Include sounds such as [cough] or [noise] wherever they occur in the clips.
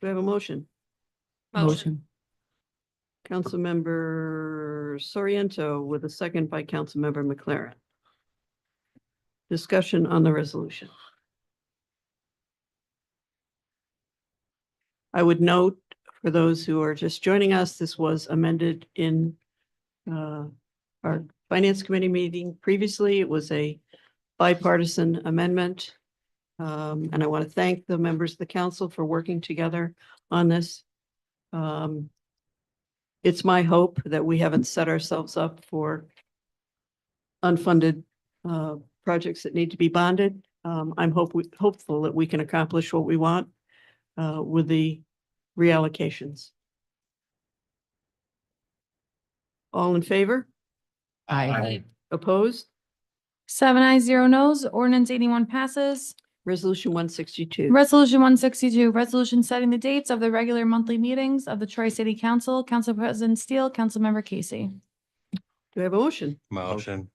Do I have a motion? Motion. Councilmember Soriento with a second by Councilmember McLaren. Discussion on the resolution. I would note for those who are just joining us, this was amended in uh, our Finance Committee meeting previously. It was a bipartisan amendment. Um, And I want to thank the members of the council for working together on this. Um, it's my hope that we haven't set ourselves up for unfunded uh, projects that need to be bonded. Um, I'm hope, hopeful that we can accomplish what we want uh, with the reallocations. All in favor? Aye. Opposed? Seven eyes, zero nos. Ordinance eighty-one passes. Resolution one sixty-two. Resolution one sixty-two, resolution setting the dates of the regular monthly meetings of the Troy City Council. Council President Steele, Councilmember Casey. Do I have a motion? Motion.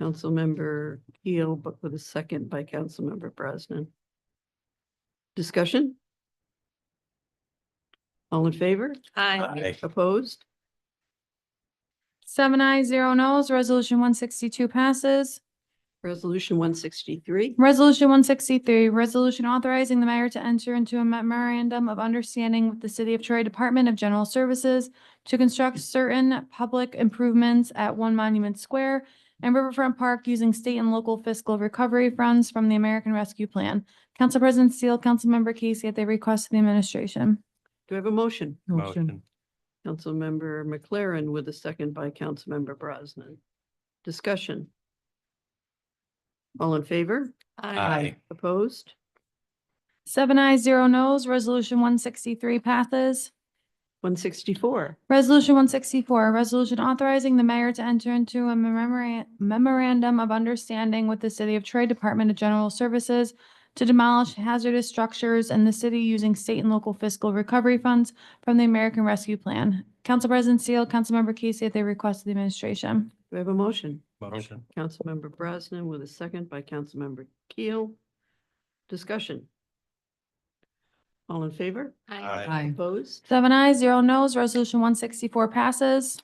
Councilmember Keel, but with a second by Councilmember Brosnan. Discussion? All in favor? Aye. Opposed? Seven eyes, zero nos. Resolution one sixty-two passes. Resolution one sixty-three. Resolution one sixty-three, resolution authorizing the mayor to enter into a memorandum of understanding with the City of Troy Department of General Services to construct certain public improvements at One Monument Square and Riverfront Park using state and local fiscal recovery funds from the American Rescue Plan. Council President Steele, Councilmember Casey at the request of the administration. Do I have a motion? Motion. Councilmember McLaren with a second by Councilmember Brosnan. Discussion? All in favor? Aye. Opposed? Seven eyes, zero nos. Resolution one sixty-three passes. One sixty-four. Resolution one sixty-four, a resolution authorizing the mayor to enter into a memora- memorandum of understanding with the City of Troy Department of General Services to demolish hazardous structures in the city using state and local fiscal recovery funds from the American Rescue Plan. Council President Seal, Councilmember Casey at the request of the administration. Do I have a motion? Motion. Councilmember Brosnan with a second by Councilmember Keel. Discussion? All in favor? Aye. Opposed? Seven ayes, zero nos. Resolution one sixty-four passes.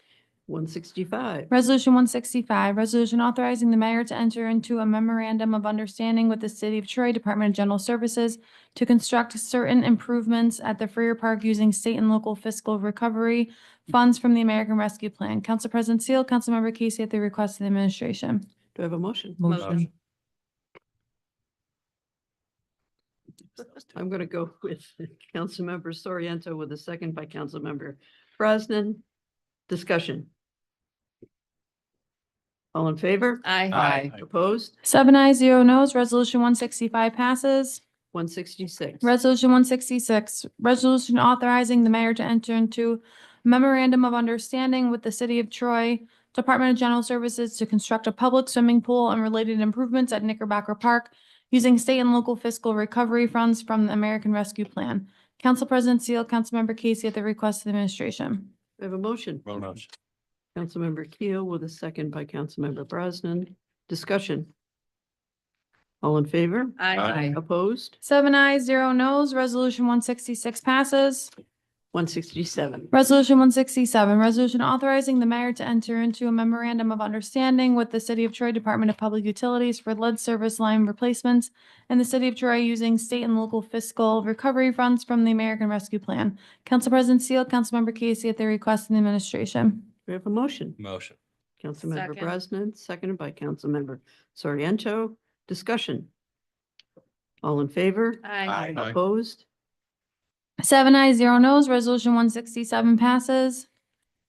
One sixty-five. Resolution one sixty-five, resolution authorizing the mayor to enter into a memorandum of understanding with the City of Troy Department of General Services to construct certain improvements at the Freer Park using state and local fiscal recovery funds from the American Rescue Plan. Council President Seal, Councilmember Casey at the request of the administration. Do I have a motion? Motion. I'm going to go with Councilmember Soriento with a second by Councilmember Brosnan. Discussion. All in favor? Aye. Opposed? Seven ayes, zero nos. Resolution one sixty-five passes. One sixty-six. Resolution one sixty-six, resolution authorizing the mayor to enter into memorandum of understanding with the city of Troy Department of General Services to construct a public swimming pool and related improvements at Knickerbocker Park using state and local fiscal recovery funds from the American Rescue Plan. Council President Seal, Councilmember Casey at the request of the administration. We have a motion. Motion. Councilmember Keel with a second by Councilmember Brosnan. Discussion. All in favor? Aye. Opposed? Seven ayes, zero nos, resolution one sixty-six passes. One sixty-seven. Resolution one sixty-seven, resolution authorizing the mayor to enter into a memorandum of understanding with the City of Troy Department of Public Utilities for lead service line replacements and the City of Troy using state and local fiscal recovery funds from the American Rescue Plan. Council President Seal, Councilmember Casey at the request of the administration. We have a motion. Motion. Councilmember Second. Brosnan, seconded by Councilmember Soriento. Discussion. All in favor? Aye. Opposed? Seven ayes, zero nos, resolution one sixty-seven passes.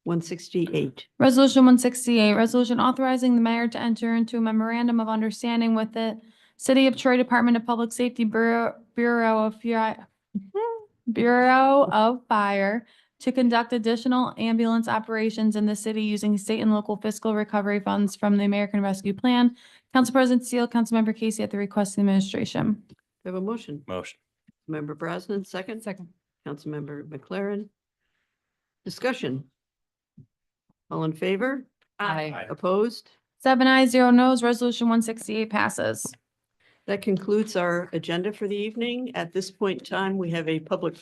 One sixty-eight. Resolution one sixty-eight, resolution authorizing the mayor to enter into a memorandum of understanding with the City of Troy Department of Public Safety Bureau, Bureau of Fire, [laughs] Bureau of Fire to conduct additional ambulance operations in the city using state and local fiscal recovery funds from the American Rescue Plan. Council President Steele, Councilmember Casey at the request of the administration. We have a motion. Motion. Member Brosnan, second. Second. Councilmember McLaren. Discussion. All in favor? Aye. Opposed? Seven ayes, zero nos, resolution one sixty-eight passes. That concludes our agenda for the evening. At this point in time, we have a public